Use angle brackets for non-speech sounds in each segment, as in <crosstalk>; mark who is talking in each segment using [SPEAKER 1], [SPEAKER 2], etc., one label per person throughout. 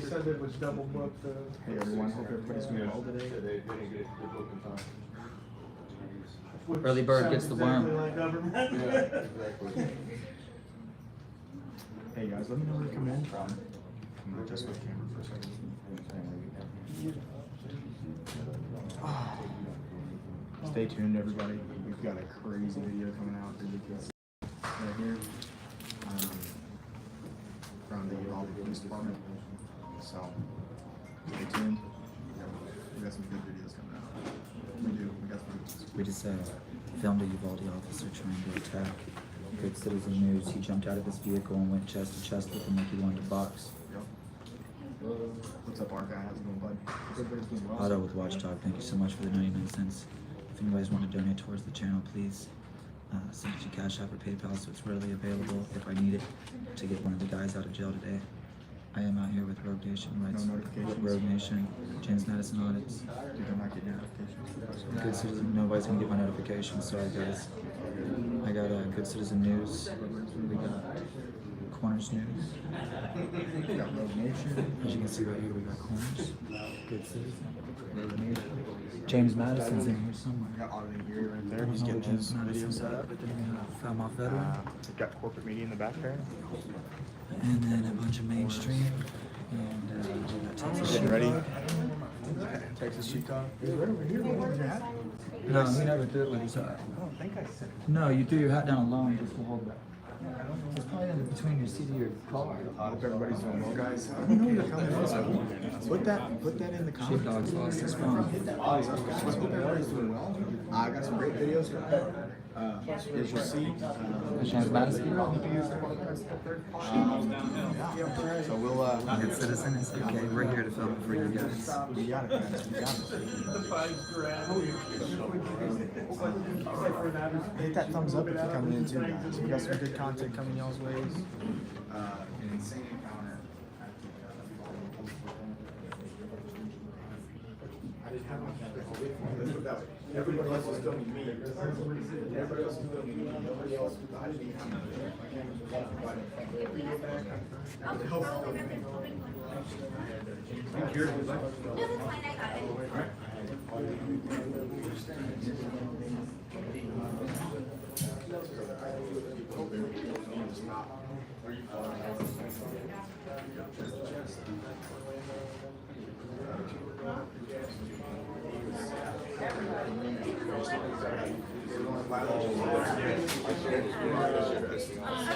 [SPEAKER 1] said it was double booked, uh.
[SPEAKER 2] Hey everyone, hope everybody's doing well today.
[SPEAKER 3] They didn't get the book in time.
[SPEAKER 1] which
[SPEAKER 4] Early bird
[SPEAKER 1] sounds
[SPEAKER 4] gets the
[SPEAKER 1] exactly
[SPEAKER 4] worm.
[SPEAKER 1] Like government.
[SPEAKER 3] Yeah,
[SPEAKER 1] <laughs>
[SPEAKER 3] exactly.
[SPEAKER 2] Hey guys, let me know where you're coming in from. I'm gonna adjust my camera for a second. Ah. Stay tuned, everybody. We've got a crazy video coming out that you can see right here. um, From the Uvalde Police Department. So, stay tuned. We got some good videos coming out. We do, we got some.
[SPEAKER 4] We just uh, filmed a Uvalde officer trying to attack. Good Citizen News. He jumped out of his vehicle and went chest to chest with him like he wanted to box.
[SPEAKER 2] Yep. What's up, our guy? How's it going, bud? Everybody's doing well.
[SPEAKER 4] Otto with Watchdog. Thank you so much for the 99 cents. If you guys want to donate towards the channel, please uh, send it to Cash App or PayPal so it's readily available if I need it to get one of the guys out of jail today. I am out here with Rogue Nation Rights.
[SPEAKER 2] No notifications.
[SPEAKER 4] Rogue Nation. James Madison Audits.
[SPEAKER 2] Dude, I'm not getting notifications.
[SPEAKER 4] Good Citizen, nobody's gonna get my notifications. Sorry, guys. I got uh, Good Citizen News. We got Corners News.
[SPEAKER 2] We got Rogue Nation.
[SPEAKER 4] As you can see right here, we got Corners. Good Citizen. Road Nation. James Madison's in here
[SPEAKER 2] We
[SPEAKER 4] somewhere.
[SPEAKER 2] got auditing Erie right
[SPEAKER 4] I
[SPEAKER 2] there.
[SPEAKER 4] don't
[SPEAKER 2] He's
[SPEAKER 4] know
[SPEAKER 2] getting
[SPEAKER 4] what James
[SPEAKER 2] his video
[SPEAKER 4] Madison's
[SPEAKER 2] set
[SPEAKER 4] at,
[SPEAKER 2] up.
[SPEAKER 4] but then we got Foul Mouth
[SPEAKER 2] Uh,
[SPEAKER 4] Veteran.
[SPEAKER 2] we've got corporate media in the back there.
[SPEAKER 4] And then a bunch of mainstream. And uh, we got Texas
[SPEAKER 2] Getting Oh, ready.
[SPEAKER 4] Sheepdog.
[SPEAKER 2] Texas Sheepdog. He's right over here. Where's your hat?
[SPEAKER 4] No, he never did with his hat.
[SPEAKER 2] Oh, I don't think I said.
[SPEAKER 4] No, you threw your hat down alone just to hold that. It's probably in between your seat of your car.
[SPEAKER 2] Hope everybody's doing well, guys. Let me know when you're coming in. Put that, put that in the comments.
[SPEAKER 4] Sheepdog's lost his phone.
[SPEAKER 2] Hit that thumbs up, guys. Hope everybody's doing well. I got some great videos for Uh, as you see. uh,
[SPEAKER 4] James Madison.
[SPEAKER 2] Um, yeah. So we'll, uh,
[SPEAKER 4] Good citizen, it's okay. We're here to film it for you guys.
[SPEAKER 2] we got it, guys. We got it. Hit that thumbs up if you're coming in too, guys. We got some good content coming y'all's ways. Uh, an insane encounter.
[SPEAKER 3] Everybody else was filming me. Everybody else was filming me. Nobody else, I didn't even have my my camera was off. but I- Help.
[SPEAKER 5] No, that's fine, I got it.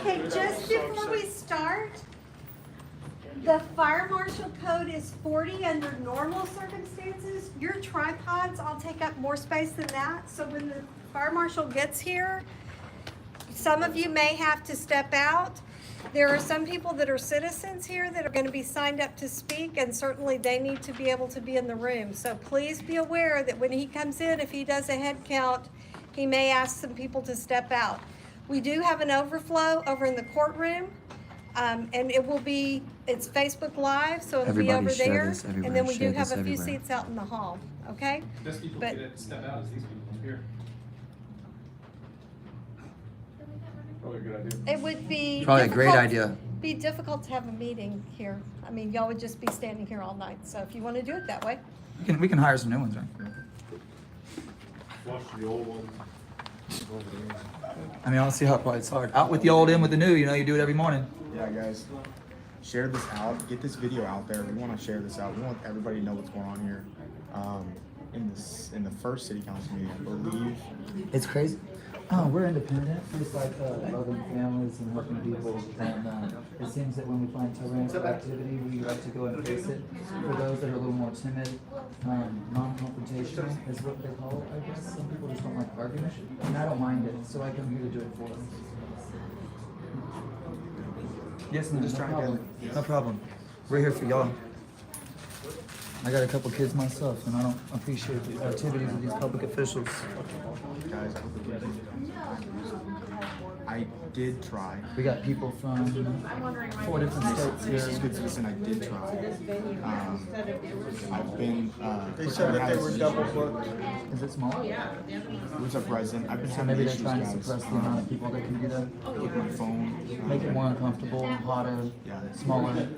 [SPEAKER 5] Okay, just before we start, the fire marshal code is forty under normal circumstances. Your tripods all take up more space than that, so when the fire marshal gets here, some of you may have to step out. There are some people that are citizens here that are gonna be signed up to speak, and certainly they need to be able to be in the room. So please be aware that when he comes in, if he does a head count, he may ask some people to step out. We do have an overflow over in the courtroom, um, and it will be, it's Facebook Live, so it'll be
[SPEAKER 4] Everybody
[SPEAKER 5] over
[SPEAKER 4] share
[SPEAKER 5] there.
[SPEAKER 4] this,
[SPEAKER 5] And
[SPEAKER 4] everywhere,
[SPEAKER 5] then we do
[SPEAKER 4] share
[SPEAKER 5] have
[SPEAKER 4] this
[SPEAKER 5] a few
[SPEAKER 4] everywhere.
[SPEAKER 5] seats out in the hall, okay?
[SPEAKER 6] Best people
[SPEAKER 5] But-
[SPEAKER 6] get to step out is these people here.
[SPEAKER 3] Probably a good idea.
[SPEAKER 5] It would be.
[SPEAKER 4] Probably a great
[SPEAKER 5] difficult-
[SPEAKER 4] idea.
[SPEAKER 5] Be difficult to have a meeting here. I mean, y'all would just be standing here all night, so if you want to do it that way.
[SPEAKER 4] We can, we can hire some new ones, right?
[SPEAKER 3] Flush the old one.
[SPEAKER 4] I mean, I don't see how it's hard. Out with the old, in with the new. You know, you do it every morning.
[SPEAKER 2] Yeah, guys, share this out. Get this video out there. We want to share this out. We want everybody to know what's going on here. Um, in this, in the first city council meeting, I believe.
[SPEAKER 4] It's crazy. Oh, we're independent. It's like uh, loving families and helping people. And uh, it seems that when we find tyrannical activity, we like to go and face it. For those that are a little more timid, um, non-confrontational is what they call it. I guess some people just don't like argument, and I don't mind it. So I come here to do it for them. Yes, ma'am.
[SPEAKER 2] Just
[SPEAKER 4] No
[SPEAKER 2] trying to
[SPEAKER 4] problem. No problem. We're here for y'all. I got a couple kids myself, and I don't appreciate the activities of these public officials.
[SPEAKER 2] Guys, I hope it gives you- I did try.
[SPEAKER 4] We got people from four different states
[SPEAKER 2] This is
[SPEAKER 4] here.
[SPEAKER 2] good citizen. I did try. Um, I've been. Uh,
[SPEAKER 1] They said that they were double booked.
[SPEAKER 4] Is it small?
[SPEAKER 2] What's up, resident? I've been
[SPEAKER 4] So
[SPEAKER 2] having
[SPEAKER 4] maybe they're
[SPEAKER 2] issues,
[SPEAKER 4] trying to
[SPEAKER 2] guys.
[SPEAKER 4] suppress the amount of people that can do that.
[SPEAKER 2] um, with my phone.
[SPEAKER 4] Make it more uncomfortable, hotter,
[SPEAKER 2] Yeah.
[SPEAKER 4] smaller.